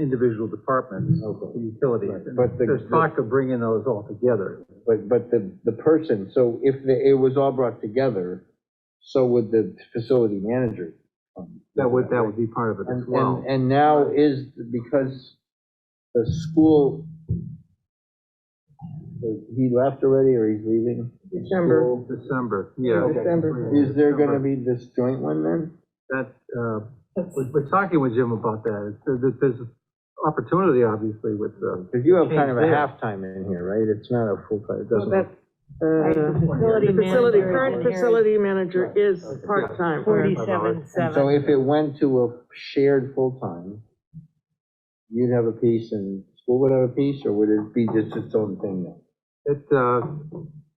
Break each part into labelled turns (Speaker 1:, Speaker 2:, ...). Speaker 1: individual departments, utilities.
Speaker 2: Right, but the-
Speaker 1: There's talk of bringing those all together.
Speaker 2: But, but the, the person, so if the- it was all brought together, so would the facility manager. um,
Speaker 1: That would, that would be part of it as
Speaker 2: And,
Speaker 1: well.
Speaker 2: and, and now is, because the school, he left already or he's leaving?
Speaker 3: December,
Speaker 1: December, yeah.
Speaker 3: December.
Speaker 2: Is there gonna be this joint one then?
Speaker 1: That, uh, we're, we're talking with Jim about that. It's- There's, there's opportunity, obviously, with, uh,
Speaker 2: Because you have kind of a
Speaker 1: Change there.
Speaker 2: halftime in here, right? It's not a full-time, it
Speaker 3: Well, uh,
Speaker 2: doesn't.
Speaker 3: that- The facility, current facility manager is part-time. whereas-
Speaker 4: Forty-seven,
Speaker 2: And So
Speaker 4: seven.
Speaker 2: if it went to a shared full-time, you'd have a piece and school would have a piece, or would it be just its own thing then?
Speaker 1: it, uh,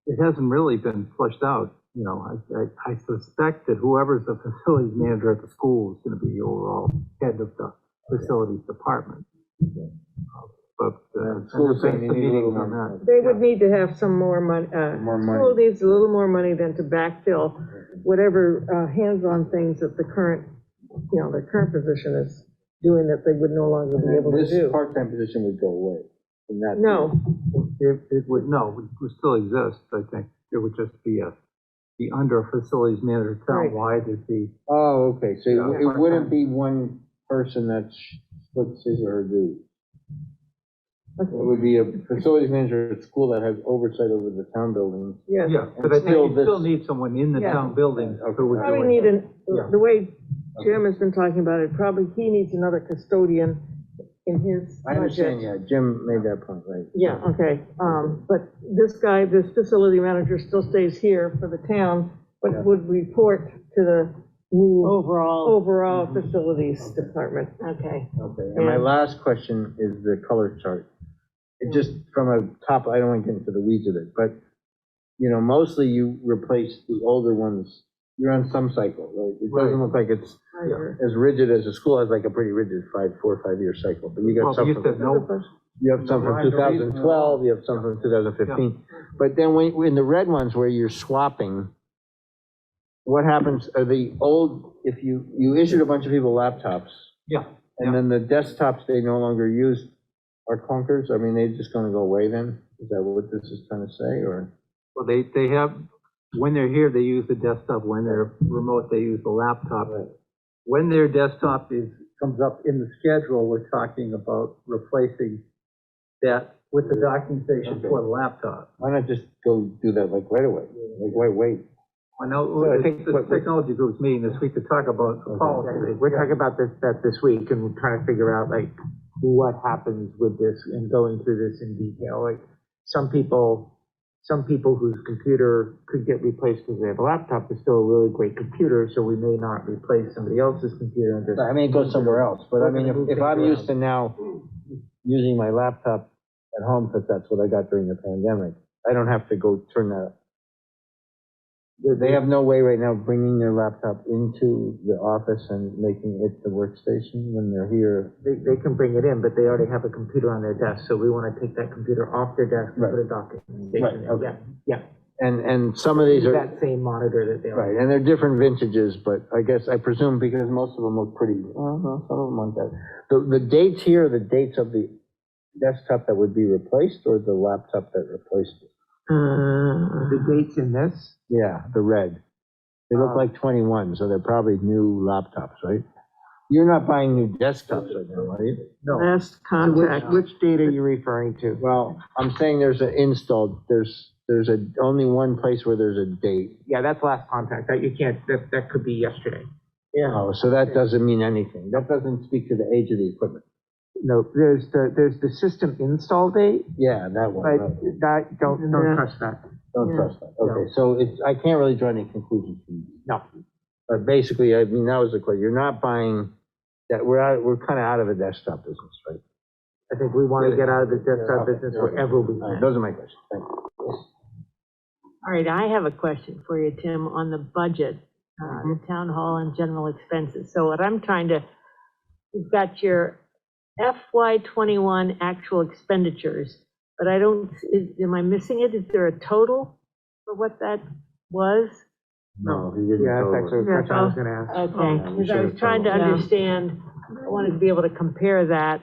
Speaker 1: it hasn't really been flushed out, you know. I, I, I suspect that whoever's the facilities manager at the school is gonna be the overall head of the facilities department. But, uh.
Speaker 2: Yeah, school's saying they
Speaker 1: there's a
Speaker 2: need a little
Speaker 1: meeting on
Speaker 2: more-
Speaker 1: that.
Speaker 3: They would need to have some more money, uh,
Speaker 2: More money.
Speaker 3: school needs a little more money than to backfill whatever, uh, hands-on things that the current, you know, the current position is doing that they would no longer be able to
Speaker 2: This
Speaker 3: do.
Speaker 2: part-time position would go away. and not be-
Speaker 3: No,
Speaker 1: It, it would, no, it would still exist, I think. It would just be a, the under facilities manager
Speaker 3: Right.
Speaker 1: townwide is the,
Speaker 2: Oh, okay, so
Speaker 1: Yeah,
Speaker 2: it- it
Speaker 1: part-time.
Speaker 2: wouldn't be one person that sh- splits his or her duties. It would be a facilities manager at school that has oversight over the town buildings.
Speaker 3: yes.
Speaker 1: yeah,
Speaker 2: And
Speaker 1: but I think
Speaker 2: still
Speaker 1: you still
Speaker 2: this-
Speaker 1: need someone in the
Speaker 3: Yeah.
Speaker 1: town building who would
Speaker 3: Probably
Speaker 1: do
Speaker 3: need
Speaker 1: it.
Speaker 3: an,
Speaker 1: Yeah.
Speaker 3: the way Jim has been talking about it, probably he needs another custodian in his
Speaker 2: I understand,
Speaker 3: budget.
Speaker 2: yeah, Jim made that point, right?
Speaker 3: Yeah, okay, um, but this guy, this facility manager still stays here for the town,
Speaker 2: Yeah.
Speaker 3: but would report to the new
Speaker 5: Oh,
Speaker 4: Overall,
Speaker 3: overall
Speaker 5: Mm-hmm.
Speaker 3: facilities department, okay.
Speaker 2: Okay, and my
Speaker 3: And-
Speaker 2: last question is the color chart. It just, from a top, I don't want to get into the weeds of it, but, you know, mostly you replace the older ones, you're on some cycle, right? It doesn't
Speaker 1: Right.
Speaker 2: look like it's
Speaker 1: Yeah.
Speaker 2: as rigid as a school has like a pretty rigid five, four, five-year cycle, but you got
Speaker 1: Well, we
Speaker 2: some
Speaker 1: used to have
Speaker 2: from,
Speaker 1: no,
Speaker 2: you have some from
Speaker 1: Right, the
Speaker 2: two
Speaker 1: reason-
Speaker 2: thousand twelve, you have some from two thousand fifteen. But then when, when the red ones where you're swapping, what happens, are the old, if you, you issued a bunch of people laptops,
Speaker 1: yeah,
Speaker 2: and then the desktops they no longer use are clunkers? I mean, they're just gonna go away then? Is that what this is trying to say, or?
Speaker 1: well, they, they have, when they're here, they use the desktop, when they're remote, they use the laptop. When their desktop is, comes up in the schedule, we're talking about replacing that with the docking station for the laptop.
Speaker 2: Why not just go do that like right away? Like, wait, wait.
Speaker 1: I know,
Speaker 2: So I
Speaker 1: the
Speaker 2: think what we-
Speaker 1: technology group's meeting this week to talk about the policy.
Speaker 5: Oh, We're talking about this, that this week, and we're trying to figure out, like, what happens with this, and going through this in detail, like, some people, some people whose computer could get replaced because they have a laptop, is still a really great computer, so we may not replace somebody else's computer and just.
Speaker 2: I mean, go somewhere else, but I mean, if, if I'm used to now using my laptop at home, because that's what I got during the pandemic, I don't have to go turn that. They- They have no way right now of bringing their laptop into the office and making it the workstation when they're here.
Speaker 5: They, they can bring it in, but they already have a computer on their desk, so we want to take that computer off their desk and
Speaker 2: Right.
Speaker 5: put a docking
Speaker 2: Right,
Speaker 5: station in,
Speaker 2: okay.
Speaker 5: yeah, yeah.
Speaker 2: And, and some of these are,
Speaker 5: That same monitor that they already
Speaker 2: right, and they're different vintages, but I guess, I presume because most of them look pretty, well, no, some of them aren't that. The, the dates here are the dates of the desktop that would be replaced or the laptop that replaced it?
Speaker 5: The dates in this?
Speaker 2: Yeah, the red. They look
Speaker 5: Uh,
Speaker 2: like 21, so they're probably new laptops, right? You're not buying new desktops right now, are you?
Speaker 3: Last contact,
Speaker 5: Which date are you referring to?
Speaker 2: Well, I'm saying there's an installed, there's, there's a, only one place where there's a date.
Speaker 5: Yeah, that's last contact, that you can't, that, that could be yesterday.
Speaker 2: Oh, so that doesn't mean anything. That doesn't speak to the age of the equipment.
Speaker 5: No, there's the, there's the system install date,
Speaker 2: Yeah, that
Speaker 5: but
Speaker 2: one, right.
Speaker 5: that, don't,
Speaker 3: Yeah.
Speaker 5: don't trust that,
Speaker 2: don't trust that. Okay, so it's, I can't really draw any conclusions from this.
Speaker 5: no.
Speaker 2: But basically, I mean, that was the question, you're not buying, that, we're out, we're kind of out of the desktop business, right?
Speaker 5: I think we want to get out of the desktop
Speaker 2: Okay,
Speaker 5: business
Speaker 2: okay.
Speaker 5: wherever we
Speaker 2: All right,
Speaker 5: can.
Speaker 2: Those are my questions, thank you.
Speaker 4: All right, I have a question for you, Tim, on the budget, uh, the town hall and general expenses. So what I'm trying to, you've got your FY twenty-one actual expenditures, but I don't, is, am I missing it? Is there a total for what that was?
Speaker 2: No, he didn't
Speaker 5: Yeah,
Speaker 2: go over.
Speaker 5: that's actually the
Speaker 4: Yeah,
Speaker 5: question I was
Speaker 4: so-
Speaker 5: gonna ask.
Speaker 4: Okay,
Speaker 2: we
Speaker 4: because I
Speaker 2: should
Speaker 4: was
Speaker 2: have
Speaker 4: trying to
Speaker 3: totaled. Yeah.
Speaker 4: understand, I wanted to be able to compare that